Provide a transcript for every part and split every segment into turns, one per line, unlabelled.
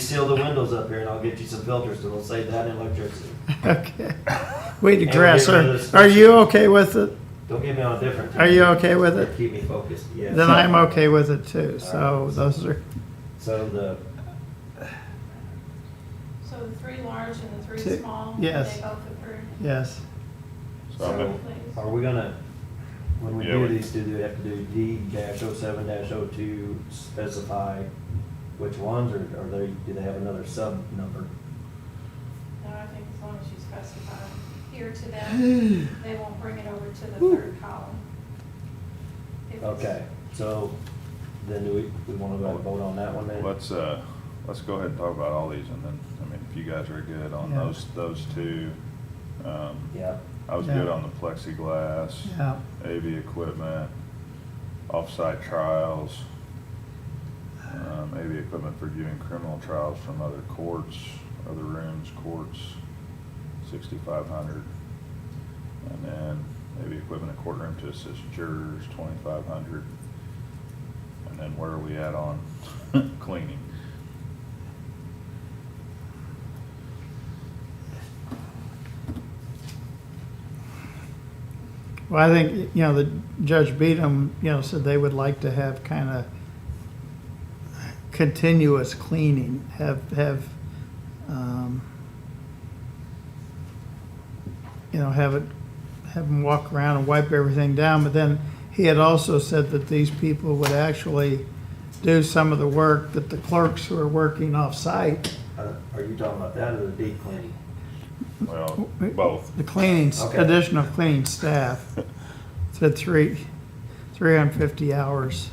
seal the windows up here and I'll get you some filters that'll save that in electricity.
Okay. We
we'll
digress.
get rid of
Are,
this-
are you okay with it?
Don't get me on a different.
Are you okay with it?
Keep me focused, yes.
Then I'm okay with it too. So those are,
So the,
So the three large and the three
Two-
small, they
yes.
both approved,
yes.
So I'm gonna-
so
please?
are we gonna, when we
Yeah,
do
we-
these, do we have to do D dash oh seven dash oh two specify which ones or are they, do they have another sub number?
No, I think as long as you specify here to them, they won't bring it over to the third column. If it's-
Okay, so then do we, we wanna go and vote on that one then?
Let's, uh, let's go ahead and talk about all these and then, I mean, if you guys are good on
Yeah.
those, those two. um,
Yeah,
I was
Yeah.
good on the plexiglass,
Yeah.
AV equipment, off-site trials, um, AV equipment for viewing criminal trials from other courts, other rooms, courts, sixty-five hundred. And then AV equipment in courtroom to assist jurors, twenty-five hundred. And then where are we at on cleaning?
Well, I think, you know, the Judge Beadham, you know, said they would like to have kind of continuous cleaning, have, have, um, you know, have it, have them walk around and wipe everything down, but then he had also said that these people would actually do some of the work that the clerks who are working off-site,
are uh, are you talking about that or the deep cleaning?
Well, both.
the cleaning,
Okay.
additional cleaning staff, to three, three hundred and fifty hours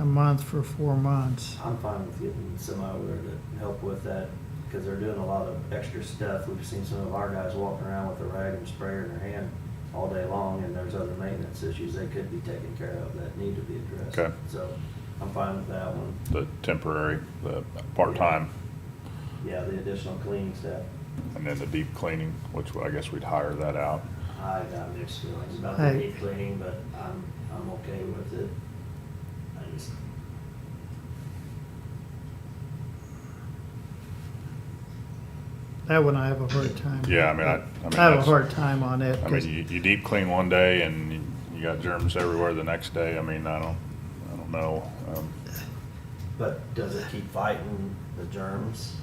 a month for four months.
I'm fine with getting somebody over there to help with that, because they're doing a lot of extra stuff. We've seen some of our guys walking around with a rag and sprayer in their hand all day long, and there's other maintenance issues they could be taken care of that need to be addressed.
Okay.
So I'm fine with that one.
The temporary, the part-time,
Yeah, the additional cleaning staff,
and then the deep cleaning, which I guess we'd hire that out.
I got mixed feelings about the
Hey.
deep cleaning, but I'm, I'm okay with it. I just,
That one I have a hard time.
Yeah, I mean, I- I mean,
have a
that's-
hard time on it.
I
'cause-
mean, you, you deep clean one day and you- you got germs everywhere the next day. I mean, I don't, I don't know. Um,
but does it keep fighting the germs,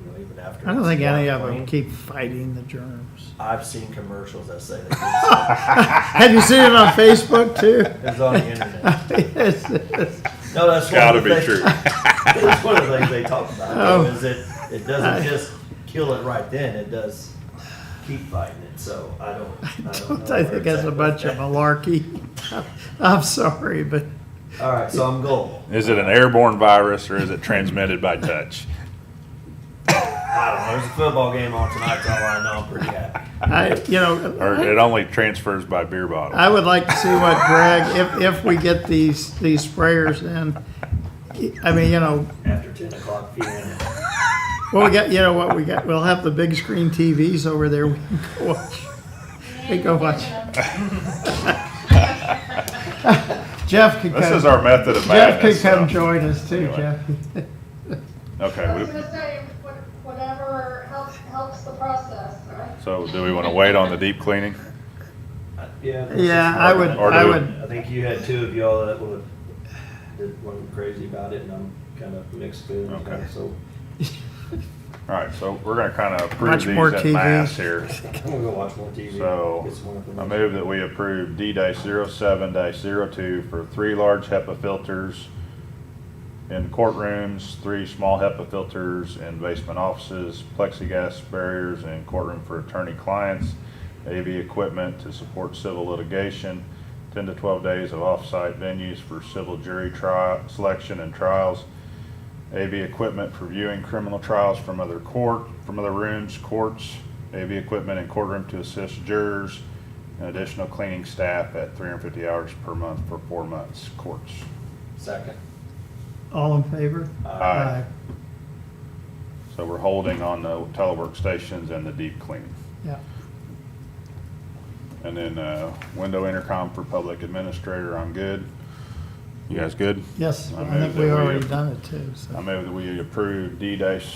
you know, even after?
I don't
it's
think any of them
cleaned?
keep fighting the germs.
I've seen commercials that say that.
Have you seen it on Facebook too?
It's on the internet.
Yes, yes.
No, that's
It's
one
gotta
of the
be
things-
true.
That's one of the things they talk about,
Oh.
though, is that it doesn't just kill it right then, it does keep fighting it, so I don't, I don't know.
I
where
think
it's
that's
at
a
with
bunch of
that.
malarkey. I'm sorry, but
All right, so I'm goal.
Is it an airborne virus or is it transmitted by touch?
I don't know, there's a football game on tonight, so I know I'm pretty happy.
I, you know.
Or
I-
it only transfers by beer bottle?
I would like to see what Greg, if, if we get these, these sprayers in, I mean, you know,
After ten o'clock PM,
well, we got, you know what, we got, we'll have the big screen TVs over there, we can go watch. Hey, go watch. Jeff could come.
This is our method of
Jeff could
madness.
come
so-
join us too,
Anyway.
Jeff.
Okay,
I was
we-
gonna say, what- whatever helps, helps the process, right?
so do we want to wait on the deep cleaning?
I- Uh, yeah. this is
Yeah, I would,
hard.
Or do
I
it.
would,
I think you had two of y'all that were, that went crazy about it, and I'm kind of mixed feelings, on
Okay.
it, so
All right, so we're going to kind of approve
Much more
these
TV.
in mass here.
I'm gonna go watch more TV.
So,
Get some more
I
information.
move that we approve D dash zero seven dash zero two for three large HEPA filters in courtrooms, three small HEPA filters in basement offices, plexiglass barriers in courtroom for attorney clients, AV equipment to support civil litigation, ten to twelve days of off-site venues for civil jury trial, selection and trials, AV equipment for viewing criminal trials from other court, from other rooms, courts, AV equipment in courtroom to assist jurors, and additional cleaning staff at three hundred and fifty hours per month for four months, courts.
Second.
all in favor?
Aye. So we're holding on the telework stations and the deep cleaning.
Yeah,
And then, uh, window intercom for public administrator, I'm good. You guys good?
Yes,
I
I
move
think we
that we-
already done it too, so.
I move that we approve D dash